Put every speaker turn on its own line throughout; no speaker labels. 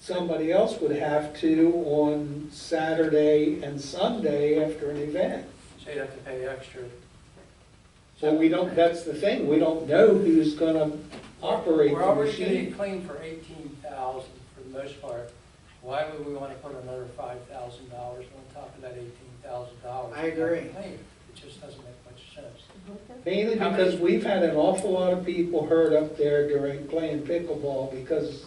somebody else would have to on Saturday and Sunday after an event.
So you'd have to pay extra.
So we don't, that's the thing, we don't know who's gonna operate
We're
the
already getting
machine.
clean for eighteen thousand for the most part. Why would we want to put another five thousand dollars on top of that eighteen thousand dollars?
I agree.
It just doesn't make much sense.
Mainly
How many-
because we've had an awful lot of people hurt up there during playing pickleball because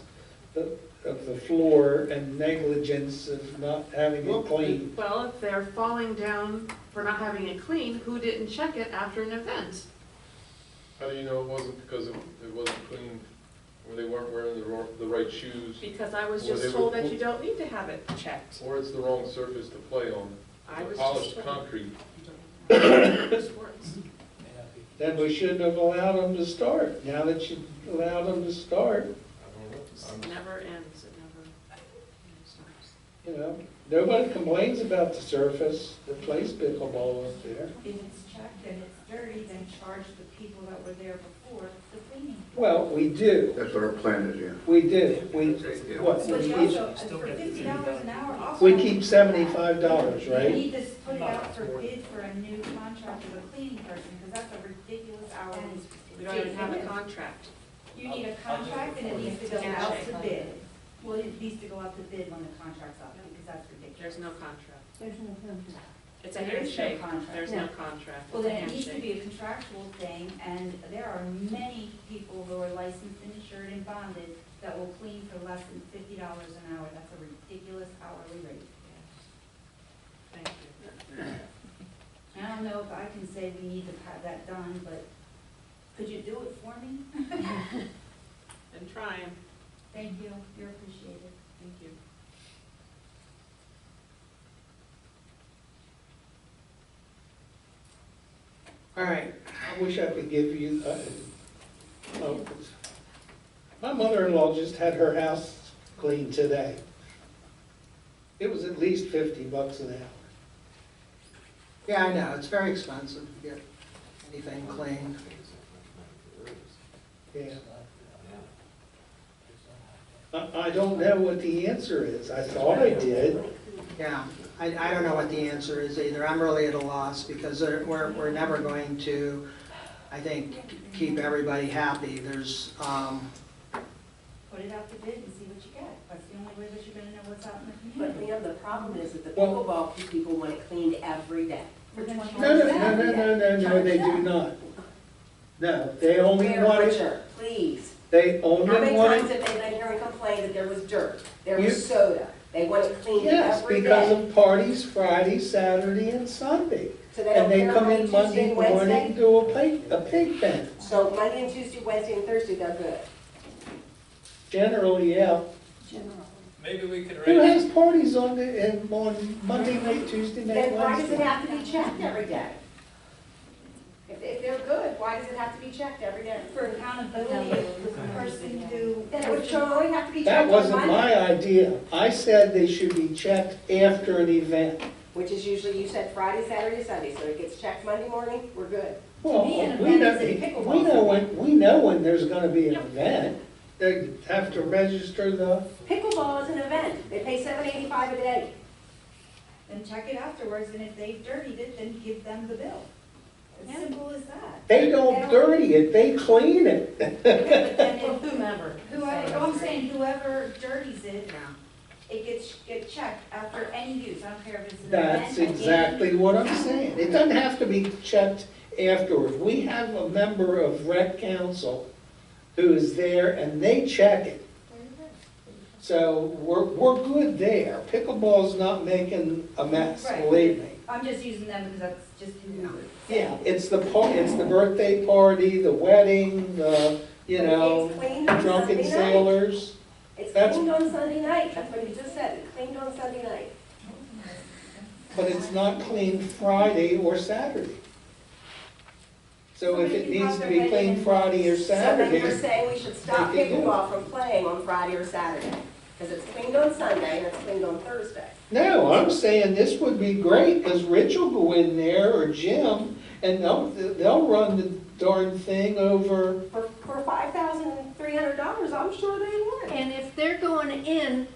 the- of the floor and negligence of not having it cleaned.
Well, if they're falling down for not having it clean, who didn't check it after an event?
How do you know it wasn't because it it wasn't clean, or they weren't wearing the ro- the right shoes,
Because I was
Well, they
just told
would-
that you don't need to have it checked.
or it's the wrong surface to play on?
I was just
Polished
told.
concrete,
Sports.
May not be-
Then we shouldn't have allowed them to start. Now that you allowed them to start,
I don't
It
know.
never ends, it never never stops.
you know, nobody complains about the surface that plays pickleball up there.
If it's checked and it's dirty, then charge the people that were there before the cleaning.
Well, we do,
That's what our plan is, yeah.
we do, we, what,
But you
we keep-
also, for fifty dollars an hour, also.
we keep seventy-five dollars,
You
right?
need to put it out for bid for a new contract with a cleaning person, because that's a ridiculous hourly.
We don't even have a
fee.
contract.
You need a contract and it needs to go out to bid. Well, it needs to go out to bid when the contract's up, because that's ridiculous.
There's no contract.
There's no contract.
It's a
There is no
handshake.
contract.
There's no contract.
Well,
It's a
then it needs to
handshake.
be a contractual thing, and there are many people who are licensed, insured, and bonded that will clean for less than fifty dollars an hour. That's a ridiculous hourly rate.
Thank you.
I don't know if I can say we need to have that done, but could you do it for me?
Been trying.
Thank you, you're appreciated.
Thank you.
All right,
I wish I could give you, uh, oh, my mother-in-law just had her house cleaned today. It was at least fifty bucks an hour.
yeah, I know, it's very expensive to get anything cleaned.
Yeah.
it's not- it's not-
I, I don't know what the answer is. I thought I did.
Yeah, I, I don't know what the answer is either. I'm really at a loss because there- we're, we're never going to, I think, keep everybody happy. There's, um,
Put it out to bid and see what you get. That's the only way that you're gonna know what's out in the
But
community.
Liam, the problem is that the
Well-
pickleball people want it cleaned every day.
We're gonna charge
No, no, no,
them.
no, no, no, no, they do not. No, they only
Mayor
want it,
Butcher, please.
they
How
only
many
want
times
it,
have they been here and complained that there was dirt, there
You-
was soda? They want it cleaned
yes,
every
because
day.
of parties Friday, Saturday, and Sunday.
So they don't
And they
care
come
Monday,
in Monday
Tuesday,
morning,
Wednesday?
do a pig, a pig pen.
So Monday and Tuesday, Wednesday and Thursday, they're good.
Generally, yeah.
Maybe we could
Who
raise,
has parties on the, and on Monday night, Tuesday night,
Then why does it
Wednesday?
have to be checked every day? If, if they're good, why does it have to be checked every day?
For accountability, the person who.
Then it would surely have to be
That
checked on
wasn't
Monday,
my idea. I said they should be checked after an event.
which is usually, you said Friday, Saturday, Sunday, so it gets checked Monday morning, we're good.
Well,
me, an
we know,
event is a pickleball.
we know when, we know when there's gonna be an event. They have to register the,
Pickleball is an event, they pay seven eighty-five a day.
Then check it afterwards, and if they've dirtied it, then give them the bill. As simple as that.
they don't dirty it, they clean it.
But then
Well,
if-
whomever.
Whoever, oh, I'm saying whoever dirties it,
Yeah.
it gets, get checked after any use, I don't care if it's an event.
That's
a game.
exactly what I'm saying. It doesn't have to be checked afterwards. We have a member of rec council who is there and they check it. So we're, we're good there. Pickleball's not making a mess,
Right.
believe me.
I'm just using them because that's just who.
Yeah, it's the, par- it's the birthday party, the wedding, the, you know,
It's cleaned on
drunken
Sunday night.
sailors.
It's
That's-
cleaned on Sunday night, that's what you just said, it's cleaned on Sunday night.
But it's not cleaned Friday or Saturday. So if it needs to be cleaned Friday or
So then you're
Saturday,
saying we should stop
They can do it.
pickleball from playing on Friday or Saturday, because it's cleaned on Sunday and it's cleaned on Thursday.
no, I'm saying this would be great, because Rich will go in there or Jim, and they'll, they'll run the darn thing over
For, for five thousand three hundred dollars, I'm sure they would.
And if they're going in